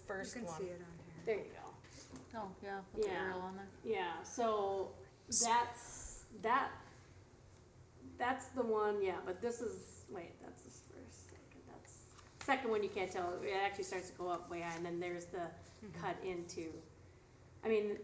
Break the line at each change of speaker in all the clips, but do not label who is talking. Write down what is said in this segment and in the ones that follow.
first
You can
one.
see it on here.
There you go.
Oh, yeah, with the
Yeah.
arrow on there.
Yeah, so that's, that, that's the one, yeah, but this is, wait, that's the first, second, that's, second one you can't tell, it actually starts to go up way high, and then there's the cut into, I mean,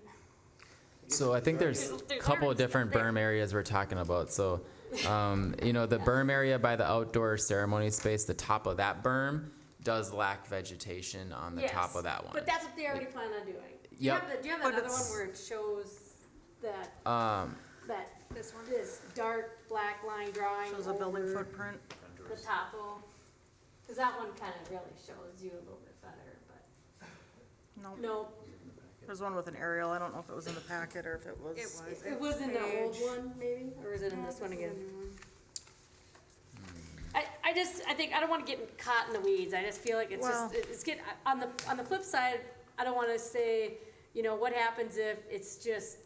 So I think there's
There's-
a
there's
couple
already
of different
stuff there.
berm areas we're talking about. So, um, you know, the berm area by the outdoor ceremony space, the top of that berm does lack vegetation on the top
Yes,
of that one.
But that's what they already plan on doing. Do you
Yep.
have, the- do you have
But
another one
it's-
where it shows that,
Um,
that,
This one?
this dark black line drawing
Shows a building
over
footprint.
the topo? Cause that one kinda really shows you a little bit better, but,
No,
no,
there's one with an aerial. I don't know if it was in the packet or if it was.
It was.
It was in the old
Page.
one, maybe, or is it in this one again?
New one.
I, I just, I think, I don't wanna get caught in the weeds, I just feel like it's
Well-
just, it- it's get, on the, on the flip side, I don't wanna say, you know, what happens if it's just,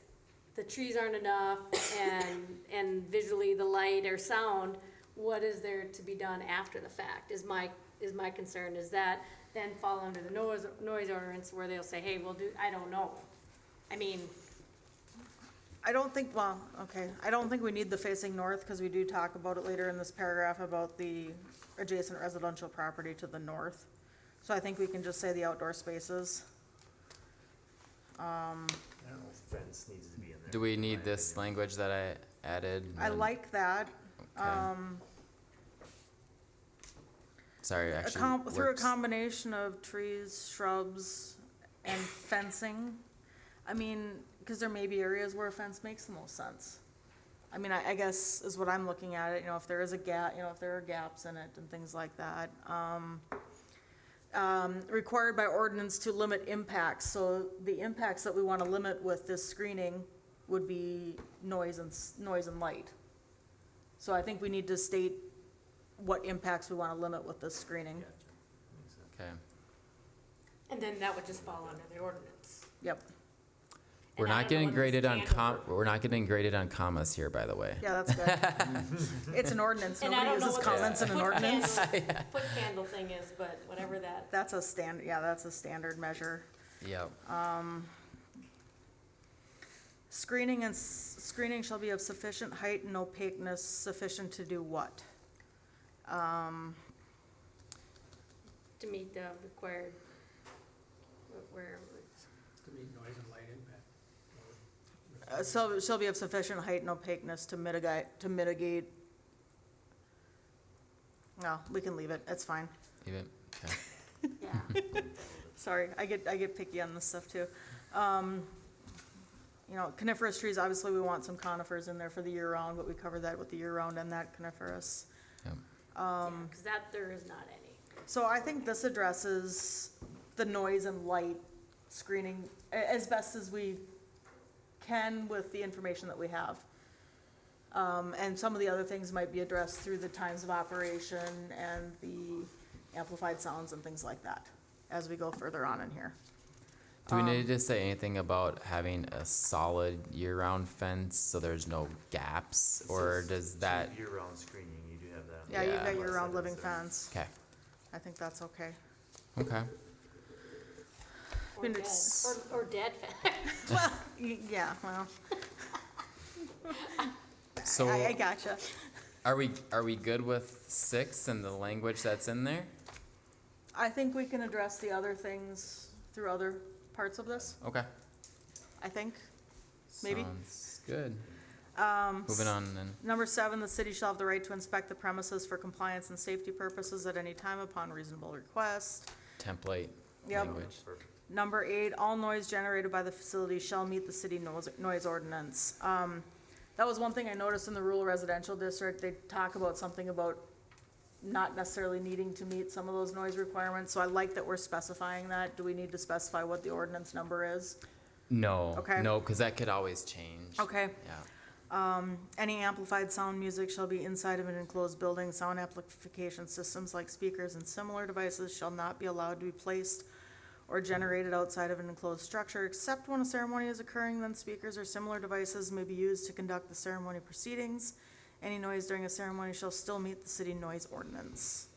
the trees aren't enough, and, and visually the light or sound, what is there to be done after the fact, is my, is my concern, is that then fall under the noise, noise ordinance where they'll say, hey, we'll do, I don't know. I mean,
I don't think, well, okay, I don't think we need the facing north, because we do talk about it later in this paragraph about the adjacent residential property to the north. So I think we can just say the outdoor spaces.
I don't know if fence needs to be in there.
do we
in
need
my
this
opinion.
language that I added? and
I
then-
like that,
okay.
um,
Sorry,
a
actually.
com- through a
works.
combination of trees, shrubs, and fencing. I mean, because there may be areas where a fence makes the most sense. I mean, I, I guess is what I'm looking at it, you know, if there is a gap, you know, if there are gaps in it and things like that. Um, um, required by ordinance to limit impacts, so the impacts that we want to limit with this screening would be noise and, s- noise and light. So I think we need to state what impacts we want to limit with this screening.
Gotcha. Makes sense.
Okay,
and then that would just fall under the ordinance.
Yep,
we're
And I
not
don't know
getting
what this
graded on com,
standard-
we're not getting graded on commas here, by the way.
yeah, that's good. It's an ordinance,
And I
nobody
don't know
uses
what
comments
the
in an
foot
ordinance.
candle- Foot candle thing is, but whatever that,
That's a stand, yeah, that's a standard measure.
Yep,
Screening and, s- screening shall be of sufficient height and opaqueness sufficient to do what?
to meet the required, wh- where,
To meet noise and light impact.
Uh, So, shall be of sufficient height and opaqueness to mitigate, to mitigate. No, we can leave it, it's fine.
even, okay.
yeah.
Sorry, I get, I get picky on this stuff too. Um, you know, coniferous trees, obviously we want some conifers in there for the year round, but we cover that with the year round and that coniferous.
Um. Cause that, there is not any.
So I think this addresses the noise and light screening a- as best as we can with the information that we have. Um, and some of the other things might be addressed through the times of operation and the amplified sounds and things like that as we go further on in here.
Do we
Um,
need to say anything about having a solid year-round fence so there's no gaps,
It
or
says
does
two
that?
Year-round screening, you do have that. on the
Yeah, you've
Yeah.
got
left
your round
side of
living
the
fence.
Okay,
I think that's okay.
okay.
Or
Been
dead,
ex-
or, or dead fa-
Y- Yeah, well,
So
I, I gotcha.
are we are we good with six and the language that's in there?
I think we can address the other things through other parts of this,
Okay.
I think. Maybe.
Sounds good.
Um,
Moving on then.
Number seven, the city shall have the right to inspect the premises for compliance and safety purposes at any time upon reasonable request.
Template
Yep.
language.
Perfect.
Number eight, all noise generated by the facility shall meet the city noise, noise ordinance. Um, that was one thing I noticed in the rural residential district, they talk about something about not necessarily needing to meet some of those noise requirements, so I like that we're specifying that. Do we need to specify what the ordinance number is?
No.
Okay.
No, because that could always change.
Okay.
Yeah.
Any amplified sound music shall be inside of an enclosed building. Sound amplification systems like speakers and similar devices shall not be allowed to be placed or generated outside of an enclosed structure, except when a ceremony is occurring, then speakers or similar devices may be used to conduct the ceremony proceedings. Any noise during a ceremony shall still meet the city noise ordinance.